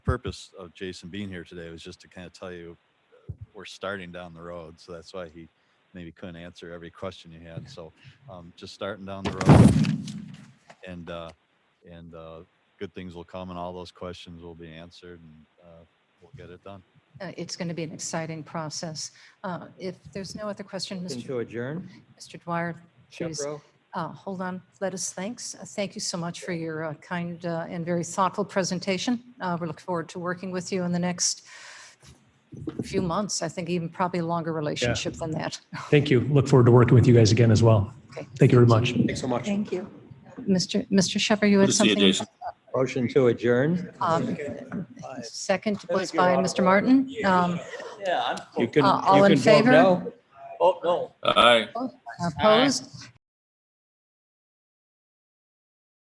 purpose of Jason being here today was just to kind of tell you uh, we're starting down the road, so that's why he maybe couldn't answer every question you had. So um, just starting down the road, and uh, and uh, good things will come, and all those questions will be answered, and uh, we'll get it done. Uh, It's going to be an exciting process. Uh, If there's no other question, Motion Mr. to adjourn? Mr. Dwyer, please, Shepro? uh, hold on, let us thanks. Uh, Thank you so much for your uh, kind uh, and very thoughtful presentation. Uh, We look forward to working with you in the next few months, I think even probably a longer relationship than that. Thank you. Look forward to working with you guys again as well. Okay. Thank you very much. Thanks so much. Thank you. Mr. Mr. Shepherd, you had Good to see you, Jason. something? Motion to adjourn? Um, Second was by Mr. Martin. Um, Yeah, I'm, You can, Uh, all you in can vote favor? no. oh, no. All right. Opposed?